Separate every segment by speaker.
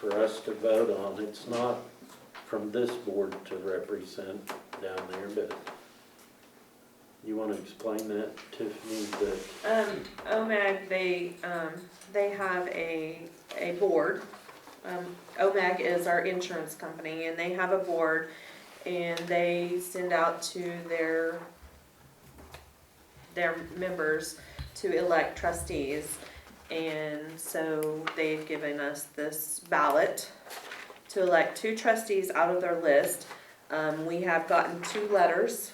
Speaker 1: for us to vote on. It's not from this board to represent down there, but you want to explain that, Tiffany, that
Speaker 2: Um, OMAG, they, um, they have a, a board. Um, OMAG is our insurance company and they have a board and they send out to their, their members to elect trustees. And so they've given us this ballot to elect two trustees out of their list. Um, we have gotten two letters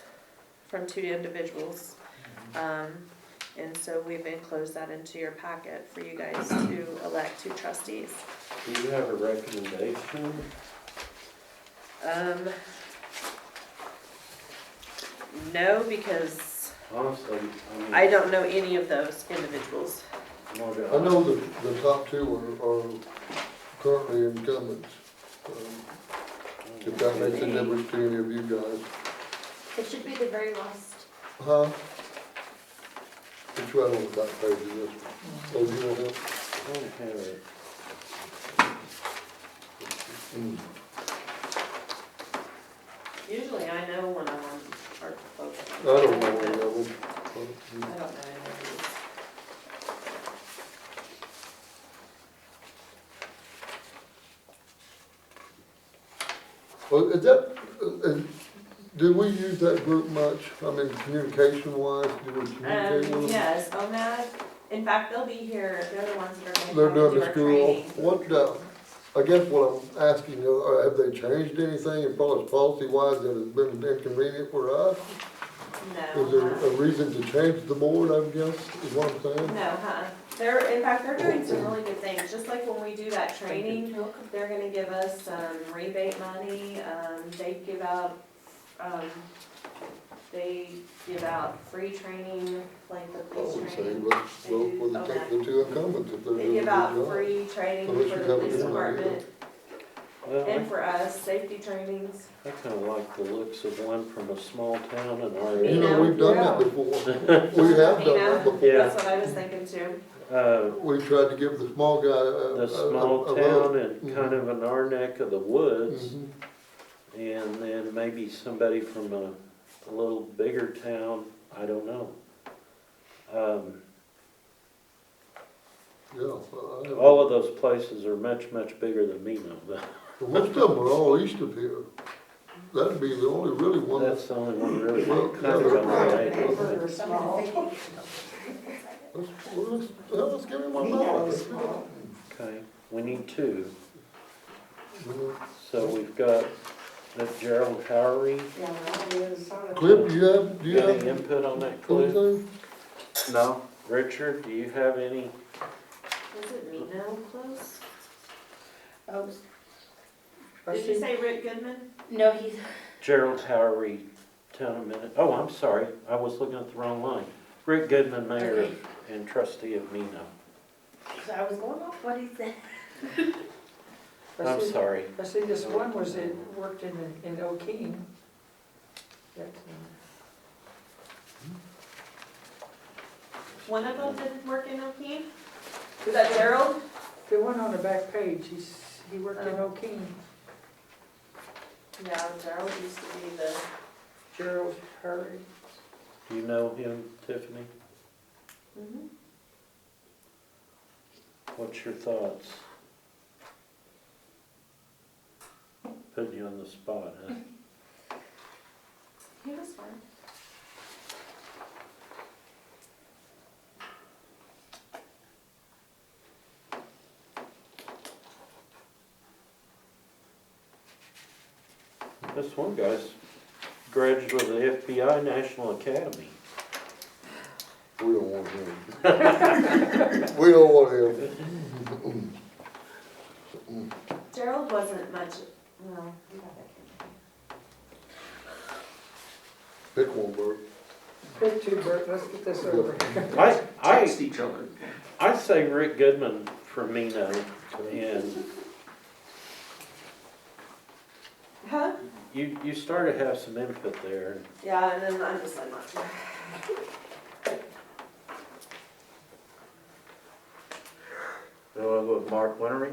Speaker 2: from two individuals. Um, and so we've enclosed that into your packet for you guys to elect two trustees.
Speaker 1: do you have a recommendation?
Speaker 2: Um, no, because
Speaker 1: Honestly, I mean.
Speaker 2: I don't know any of those individuals.
Speaker 1: no doubt.
Speaker 3: I know the, the top two are, are currently incumbents. Um, If that makes a difference to any of you guys.
Speaker 4: It should be the very last.
Speaker 3: Huh? It's right on the back page of this one. Oh, you want that?
Speaker 1: I don't have it.
Speaker 2: Usually I know when I'm, or. both.
Speaker 3: I don't know any of
Speaker 2: I
Speaker 3: them.
Speaker 2: don't know any of
Speaker 3: Well, is that, uh, is, did we use that group much? I mean, communication wise, do we communicate
Speaker 2: these. Um,
Speaker 3: with them?
Speaker 2: yes, OMAD, in fact, they'll be here, they're the ones that are
Speaker 3: They're
Speaker 2: gonna come and
Speaker 3: doing
Speaker 2: do
Speaker 3: the
Speaker 2: our
Speaker 3: school,
Speaker 2: training.
Speaker 3: what, uh, I guess what I'm asking, you, uh, have they changed anything as far as policy wise that has been inconvenient for us?
Speaker 2: No.
Speaker 3: Is there
Speaker 2: uh-uh.
Speaker 3: a reason to change the board, I guess, is what I'm saying?
Speaker 2: No, huh? They're, in fact, they're doing some really good things, just like when we do that training, they're gonna give us um, rebate money, um, they give out, um, they give out free training, like the
Speaker 3: I would
Speaker 2: police
Speaker 3: say,
Speaker 2: training.
Speaker 3: but, well, for the, the two incumbents, if they're
Speaker 2: They
Speaker 3: doing a good
Speaker 2: give out
Speaker 3: job.
Speaker 2: free training
Speaker 3: Unless
Speaker 2: for
Speaker 3: you
Speaker 2: the
Speaker 3: have a
Speaker 2: police
Speaker 3: different idea.
Speaker 2: department
Speaker 1: Well, I
Speaker 2: and for us, safety trainings.
Speaker 1: I kind of like the looks of one from a small town in our
Speaker 3: You
Speaker 1: area.
Speaker 3: know, we've done that
Speaker 2: Yeah.
Speaker 3: before, we have
Speaker 2: You
Speaker 3: done
Speaker 2: know,
Speaker 3: that before,
Speaker 1: Yeah.
Speaker 2: That's what I was thinking too.
Speaker 1: Uh,
Speaker 3: we tried to give the small guy a, a,
Speaker 1: The
Speaker 3: a
Speaker 1: small
Speaker 3: a
Speaker 1: town
Speaker 3: vote.
Speaker 1: and kind of in our neck of the woods,
Speaker 3: Mhm.
Speaker 1: and then maybe somebody from a, a little bigger town, I don't know. Um,
Speaker 3: Yeah. well, I have-
Speaker 1: All of those places are much, much bigger than Mino, but
Speaker 3: Most of them are all east of here, that'd be the only really one that's
Speaker 1: that's the only one really
Speaker 3: Well,
Speaker 1: kind of on our
Speaker 3: right.
Speaker 1: angle, but-
Speaker 3: Let's, well, let's, well, let's give him one dollar. Let's do
Speaker 1: Okay, we need two,
Speaker 3: it.
Speaker 1: so we've got the Gerald Howery.
Speaker 3: Clip, do you have, do you
Speaker 1: Got any
Speaker 3: have
Speaker 1: input on that, Cliff?
Speaker 3: anything?
Speaker 1: No. Richard, do you have any?
Speaker 2: Was it Mino close? Did you
Speaker 4: Did
Speaker 2: say Rick Goodman?
Speaker 4: No, he's,
Speaker 1: Gerald Howery, town administrator, oh, I'm sorry, I was looking at the wrong line. Rick Goodman, mayor of- and trustee of Mino.
Speaker 4: so I was going off what he said.
Speaker 5: I
Speaker 1: I'm
Speaker 5: see-
Speaker 1: sorry.
Speaker 5: I see this one was in, worked in, in Okeen. That's, uh,
Speaker 2: One of them didn't work in O'Keefe? Was that Gerald?
Speaker 5: The one on the back page, he's, he worked in
Speaker 2: Oh.
Speaker 5: Okeen,
Speaker 2: Yeah, Gerald used to be the,
Speaker 5: Gerald Hurry.
Speaker 1: Do you know him, Tiffany?
Speaker 2: Mm-hmm.
Speaker 1: What's your thoughts? Putting you on the spot, huh?
Speaker 2: he was fine.
Speaker 1: This one guy's graduate of the FBI National Academy.
Speaker 3: We don't want him. We don't want him.
Speaker 2: Gerald wasn't much, well, he got
Speaker 3: Pick one, Bert.
Speaker 5: Big two, Bert, let's get this over.
Speaker 1: I, I, I say Rick Goodman from Mino, and
Speaker 2: Huh?
Speaker 1: you, you started to have some input there.
Speaker 2: Yeah, and then I'm just like, not sure.
Speaker 1: Go with Mark Winery?